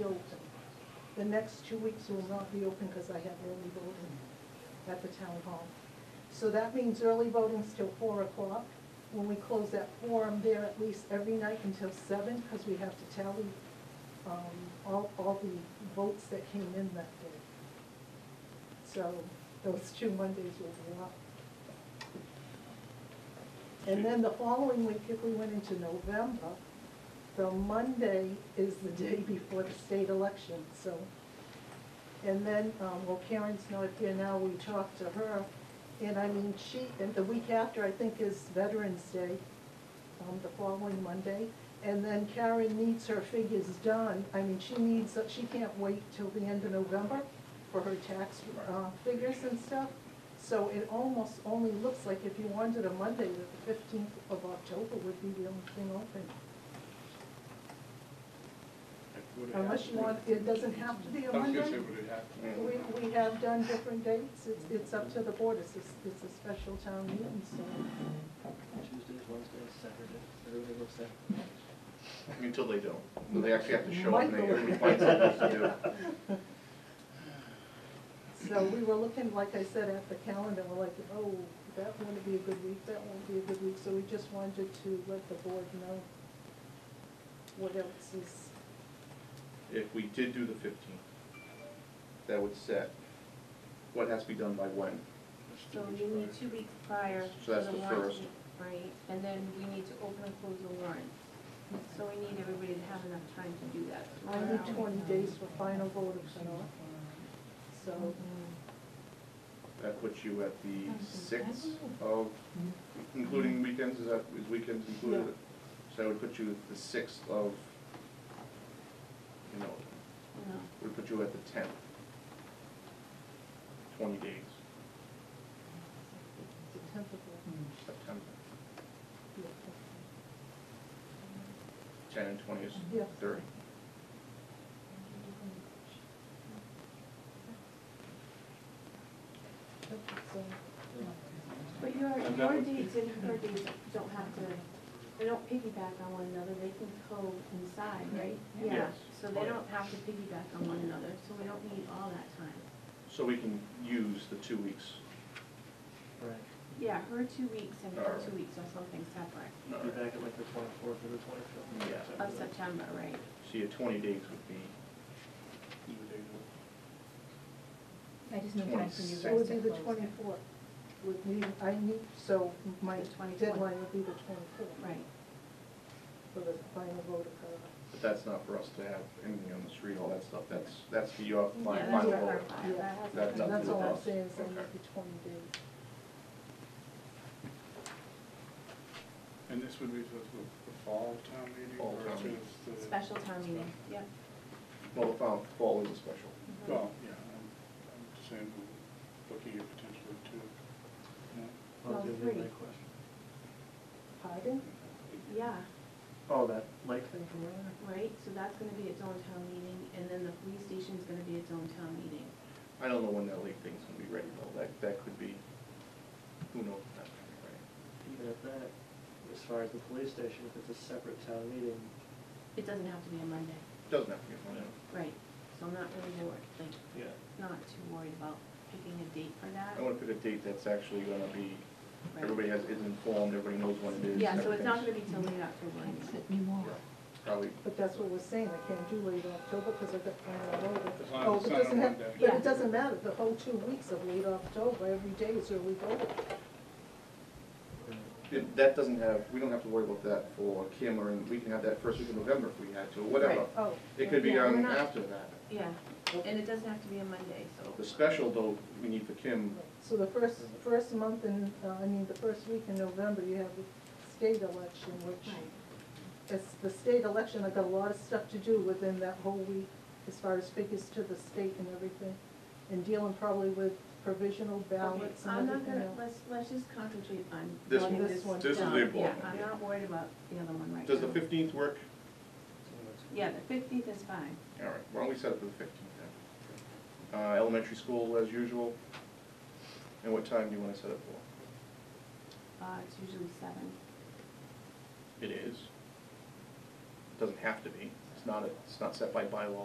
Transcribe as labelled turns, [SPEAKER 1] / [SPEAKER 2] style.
[SPEAKER 1] the next two weeks will not be open because I have early voting at the town hall. So that means early voting's till four o'clock. When we close that forum, there at least every night until seven, because we have to tally, um, all, all the votes that came in that day. So those two Mondays will be up. And then the following week, if we went into November, the Monday is the day before the state election, so. And then, um, well, Karen's not here now, we talked to her, and I mean, she, and the week after, I think, is Veterans Day, um, the following Monday. And then Karen needs her figures done, I mean, she needs, she can't wait till the end of November for her tax, uh, figures and stuff. So it almost only looks like if you wanted a Monday, that the fifteenth of October would be the only thing open.
[SPEAKER 2] Would it have
[SPEAKER 1] Unless
[SPEAKER 2] to
[SPEAKER 1] you
[SPEAKER 2] be-
[SPEAKER 1] want, it doesn't have to be a Monday.
[SPEAKER 2] I was gonna say, would it have to be? on Monday?
[SPEAKER 1] We, we have done different dates, it's, it's up to the board, it's a, it's a special town meeting, so.
[SPEAKER 3] Tuesdays, Wednesdays, Saturdays, everybody looks at.
[SPEAKER 4] Until they don't. Well, They actually have to show up and they everybody finds something to do.
[SPEAKER 1] So we were looking, like I said, at the calendar, we're like, oh, that wouldn't be a good week, that won't be a good week, so we just wanted to let the board know what else is,
[SPEAKER 4] If we did do the fifteenth, that would set what has to be done by when.
[SPEAKER 5] So you need two weeks prior
[SPEAKER 4] So
[SPEAKER 5] to
[SPEAKER 4] that's
[SPEAKER 5] the
[SPEAKER 4] the
[SPEAKER 5] warrant,
[SPEAKER 4] first.
[SPEAKER 5] right? And then we need to open and close the warrant. So we need everybody to have enough time to do that.
[SPEAKER 1] I need twenty days for final vote of cutoff, so.
[SPEAKER 4] That puts you at the sixth of, including weekends, is that, is weekends included? So that would put you at the sixth of, you know,
[SPEAKER 5] No.
[SPEAKER 4] would put you at the tenth. Twenty days,
[SPEAKER 1] The tenth of November,
[SPEAKER 4] September,
[SPEAKER 1] yeah.
[SPEAKER 4] ten and twenty is
[SPEAKER 1] Yeah.
[SPEAKER 4] thirty.
[SPEAKER 1] Okay, so,
[SPEAKER 5] But your,
[SPEAKER 2] And that
[SPEAKER 5] your
[SPEAKER 2] would-
[SPEAKER 5] dates and her dates don't have to, they don't piggyback on one another, they can coincide, right? Yeah,
[SPEAKER 4] Yes.
[SPEAKER 5] so they don't have to piggyback on one another, so we don't need all that time.
[SPEAKER 4] So we can use the two weeks.
[SPEAKER 3] Right.
[SPEAKER 5] Yeah, her two weeks and her
[SPEAKER 4] Alright.
[SPEAKER 5] two weeks are something separate
[SPEAKER 3] Be back at like the twenty-fourth or the twenty-fifth.
[SPEAKER 4] Yeah.
[SPEAKER 5] of September, right?
[SPEAKER 4] So your twenty days would be
[SPEAKER 6] I just need time for you guys
[SPEAKER 4] Twenty-sixth.
[SPEAKER 6] to
[SPEAKER 1] It would be the
[SPEAKER 6] close it.
[SPEAKER 1] twenty-fourth, would need, I need, so my
[SPEAKER 5] The 24th.
[SPEAKER 1] deadline would be the twenty-fourth.
[SPEAKER 5] Right.
[SPEAKER 1] For the final vote of cutoff.
[SPEAKER 4] But that's not for us to have anything on the street, all that stuff, that's, that's for your fi-
[SPEAKER 5] Yeah,
[SPEAKER 4] final
[SPEAKER 5] that's for
[SPEAKER 4] vote.
[SPEAKER 5] her file. That has
[SPEAKER 4] That's up
[SPEAKER 5] nothing
[SPEAKER 1] And
[SPEAKER 4] to
[SPEAKER 1] that's
[SPEAKER 4] the
[SPEAKER 1] all I'm
[SPEAKER 4] boss.
[SPEAKER 1] saying, is I
[SPEAKER 4] Okay.
[SPEAKER 1] need the twenty days.
[SPEAKER 2] And this would be the, the the fall town meeting?
[SPEAKER 4] Fall
[SPEAKER 2] or
[SPEAKER 4] town
[SPEAKER 2] is
[SPEAKER 4] meeting.
[SPEAKER 2] it the-
[SPEAKER 5] Special town meeting, yep.
[SPEAKER 4] Well, the final, fall is a special.
[SPEAKER 2] Well, yeah, I'm, I'm just saying, we're looking at potentially two. Yeah.
[SPEAKER 3] That was
[SPEAKER 5] Well,
[SPEAKER 3] gonna be my
[SPEAKER 5] three.
[SPEAKER 3] question.
[SPEAKER 1] Pardon?
[SPEAKER 5] Yeah,
[SPEAKER 3] Oh, that light thing from earlier?
[SPEAKER 5] right, so that's gonna be its own town meeting, and then the police station's gonna be its own town meeting.
[SPEAKER 4] I don't know when that league thing's gonna be ready though, that, that could be, who knows when that's gonna be ready.
[SPEAKER 3] Even at that, as far as the police station, if it's a separate town meeting,
[SPEAKER 5] It doesn't have to be a Monday,
[SPEAKER 4] Doesn't have to be Monday.
[SPEAKER 5] right, so I'm not really worried, like,
[SPEAKER 3] yeah,
[SPEAKER 5] not too worried about picking a date for that.
[SPEAKER 4] I wanna pick a date that's actually gonna be,
[SPEAKER 5] Right.
[SPEAKER 4] everybody has, is informed, everybody knows when it is.
[SPEAKER 5] Yeah, so it's not gonna
[SPEAKER 4] everything's-
[SPEAKER 5] be till late October anyway.
[SPEAKER 6] Sit anymore.
[SPEAKER 4] Yeah, Probably,
[SPEAKER 1] But that's what we're saying, I can't do late October because I've got final vote.
[SPEAKER 2] It's on-
[SPEAKER 1] Oh,
[SPEAKER 2] it's
[SPEAKER 1] but
[SPEAKER 2] on a
[SPEAKER 1] doesn't have-
[SPEAKER 2] Monday.
[SPEAKER 1] But
[SPEAKER 5] Yeah.
[SPEAKER 1] it doesn't matter, the whole two weeks of late October, every day is early vote.
[SPEAKER 4] it- that doesn't have, we don't have to worry about that for Kim or, we can have that first week of November if we had to, or whatever.
[SPEAKER 5] Right.
[SPEAKER 1] Oh.
[SPEAKER 4] It could be
[SPEAKER 5] Yeah, we're
[SPEAKER 4] on
[SPEAKER 5] not-
[SPEAKER 4] after that.
[SPEAKER 5] Yeah, and it doesn't have to be a Monday, so.
[SPEAKER 4] The special though, we need for Kim,
[SPEAKER 1] So the first, first month in, uh, I mean, the first week in November, you have the state election, which
[SPEAKER 5] Right.
[SPEAKER 1] is the state election, I've got a lot of stuff to do within that whole week as far as figures to the state and everything, and dealing probably with provisional
[SPEAKER 5] Okay,
[SPEAKER 1] ballots
[SPEAKER 5] I'm
[SPEAKER 1] and
[SPEAKER 5] not
[SPEAKER 1] everything
[SPEAKER 5] gonna,
[SPEAKER 1] else.
[SPEAKER 5] let's, let's just concentrate on
[SPEAKER 4] This
[SPEAKER 5] getting
[SPEAKER 1] one.
[SPEAKER 5] this
[SPEAKER 1] This one.
[SPEAKER 5] done.
[SPEAKER 4] This is the important
[SPEAKER 5] Yeah,
[SPEAKER 4] one,
[SPEAKER 5] I'm
[SPEAKER 4] yeah.
[SPEAKER 5] not worried about the other one right now.
[SPEAKER 4] does the fifteenth work?
[SPEAKER 3] so
[SPEAKER 5] Yeah, the fifteenth is fine.
[SPEAKER 4] All right, why don't we set it for the fifteenth then? Uh, elementary school as usual, and what time do you wanna set it for?
[SPEAKER 5] Uh, it's usually seven.
[SPEAKER 4] It is. Doesn't have to be, it's not, a- it's not set by bylaw